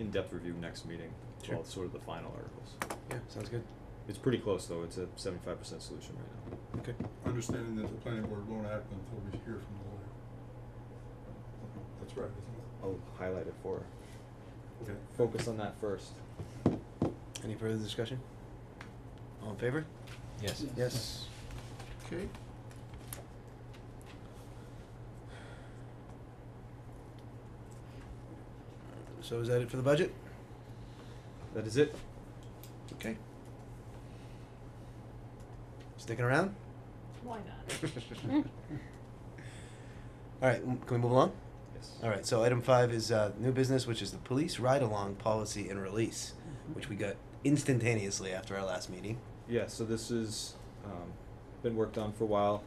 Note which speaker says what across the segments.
Speaker 1: in-depth review next meeting,
Speaker 2: Sure.
Speaker 1: well, sort of the final articles.
Speaker 2: Yeah, sounds good.
Speaker 1: It's pretty close, though, it's a seventy-five percent solution right now.
Speaker 2: Okay.
Speaker 3: Understanding that the planning board won't act until we hear from the lawyer. That's right, isn't
Speaker 1: I'll highlight it for her.
Speaker 3: it? Oh, Okay.
Speaker 1: Focus on that first.
Speaker 2: Any further discussion? All in favor?
Speaker 4: Yes.
Speaker 2: Yes.
Speaker 3: Okay.
Speaker 2: So is that it for the budget?
Speaker 1: That is it?
Speaker 2: Okay. Sticking around?
Speaker 5: Why not?
Speaker 2: All right, m- can we move along?
Speaker 1: Yes.
Speaker 2: All right, so item five is uh, new business, which is the police ride-along policy and release, which we got instantaneously after our last meeting.
Speaker 1: Yeah, so this is, um, been worked on for a while,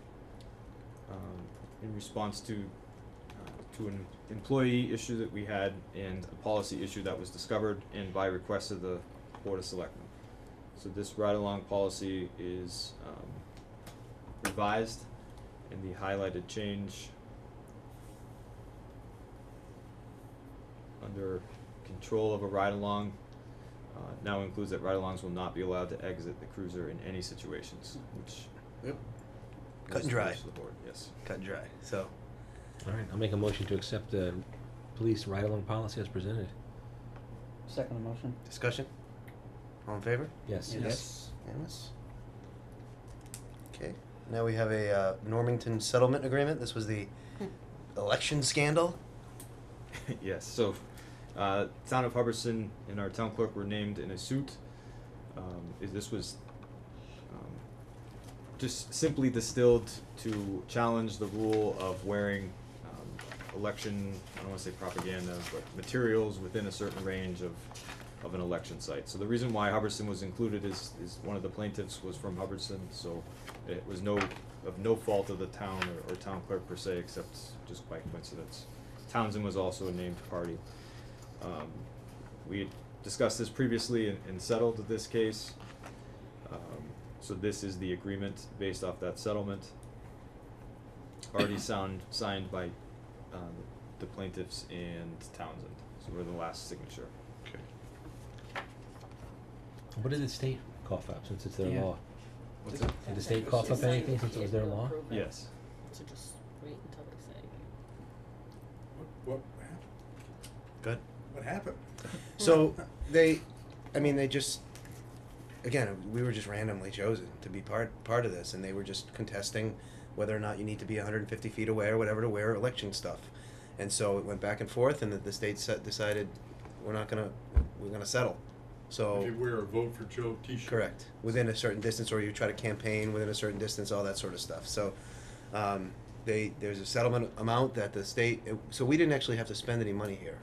Speaker 1: um, in response to, uh, to an employee issue that we had and a policy issue that was discovered and by request of the Board of Selectmen. So this ride-along policy is, um, revised and the highlighted change under control of a ride-along uh, now includes that ride-alongs will not be allowed to exit the cruiser in any situations, which
Speaker 2: Yep.
Speaker 1: was
Speaker 2: Cut and
Speaker 1: the
Speaker 2: dry.
Speaker 1: wish of the board, yes.
Speaker 2: Cut and dry. So,
Speaker 4: All right, I'll make a motion to accept the police ride-along policy as presented.
Speaker 6: Second motion.
Speaker 2: discussion. All in favor?
Speaker 4: Yes.
Speaker 6: Yes.
Speaker 2: Unanimous. Okay. Now we have a uh, Normington settlement agreement. This was the election scandal.
Speaker 1: yes. So, uh, town of Hubbardson and our town clerk were named in a suit. Um, is- this was um, just simply distilled to challenge the rule of wearing um, election. I don't want to say propaganda, but materials within a certain range of of an election site. So the reason why Hubbardson was included is is one of the plaintiffs was from Hubbardson, so it was no of no fault of the town or, or town clerk per se, except just by coincidence. Townsend was also a named party. Um, we had discussed this previously and, and settled this case. Um, so this is the agreement based off that settlement. Already sound, signed by, um, the plaintiffs and Townsend, so we're the last signature.
Speaker 3: Okay.
Speaker 4: What did the state cough up since it's their
Speaker 6: Yeah.
Speaker 4: law?
Speaker 3: What's that?
Speaker 4: Did the state cough up anything since it was their law?
Speaker 1: Yes.
Speaker 5: So just wait until they say.
Speaker 3: What, what happened?
Speaker 2: Good.
Speaker 3: What happened?
Speaker 2: So they, I mean, they just, again, we were just randomly chosen to be part part of this, and they were just contesting whether or not you need to be 150 feet away or whatever to wear election stuff, and so it went back and forth, and the, the state set, decided we're not gonna we're gonna settle, so.
Speaker 3: If you wear a vote for Joe t-shirt.
Speaker 2: Correct. Within a certain distance, or you try to campaign within a certain distance, all that sort of stuff. So, um, they there's a settlement amount that the state. It, so we didn't actually have to spend any money here.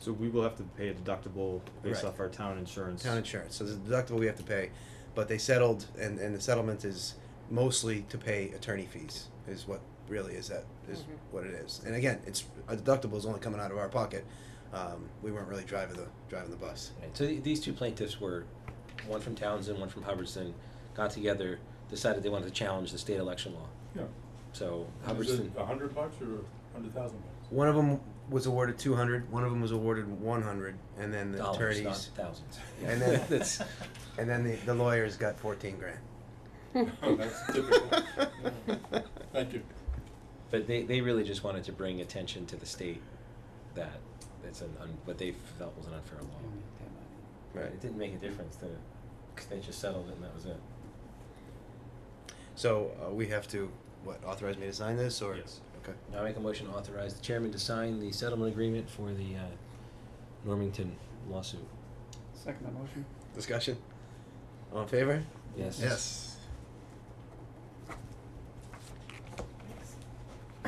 Speaker 1: So we will have to pay a deductible based
Speaker 2: Right.
Speaker 1: off our town insurance.
Speaker 2: Town insurance. So the deductible we have to pay, but they settled, and and the settlement is mostly to pay attorney fees. Is what really is that is
Speaker 5: Mhm.
Speaker 2: what it is. And again, it's a deductible is only coming out of our pocket. Um, we weren't really driving the driving the bus.
Speaker 7: Right, so the- these two plaintiffs were, one from Townsend, one from Hubbardston, got together, decided they wanted to challenge the state election law.
Speaker 3: Yeah.
Speaker 7: So
Speaker 3: And Is it
Speaker 7: Hubbardston,
Speaker 2: uh,
Speaker 3: a hundred bucks or a hundred thousand bucks?
Speaker 2: One of them was awarded 200. One of them was awarded 100, and then the
Speaker 7: dollars,
Speaker 2: attorneys.
Speaker 7: not thousands. Yeah,
Speaker 2: And then-
Speaker 7: that's-
Speaker 2: And then the, the lawyers got fourteen grand.
Speaker 3: Oh, That's typical. Yeah. Thank you.
Speaker 7: But they, they really just wanted to bring attention to the state that it's an, un- what they felt was an unfair law. It didn't make a difference, that, because they just settled it and that was it.
Speaker 2: So uh, we have to, what, authorize me to sign this or?
Speaker 1: Yes.
Speaker 2: Okay.
Speaker 7: Now I make a motion to authorize the chairman to sign the settlement agreement for the, uh, Normington lawsuit.
Speaker 6: Second motion.
Speaker 2: Discussion? All in favor?
Speaker 7: Yes.
Speaker 2: Yes.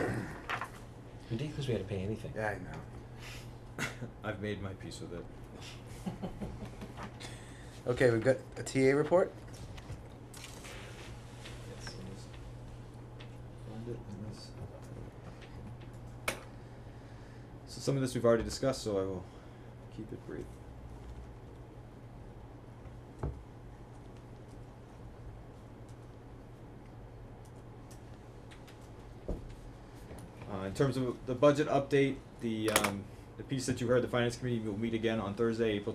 Speaker 7: Ridiculous we had to pay anything.
Speaker 2: Yeah, I know.
Speaker 1: I've made my peace with it.
Speaker 2: Okay, we've got a TA report.
Speaker 1: Yes, it is. Find it in this. So some of this we've already discussed, so I will keep it brief. Uh, in terms of the budget update, the, um, the piece that you heard, the finance committee will meet again on Thursday, April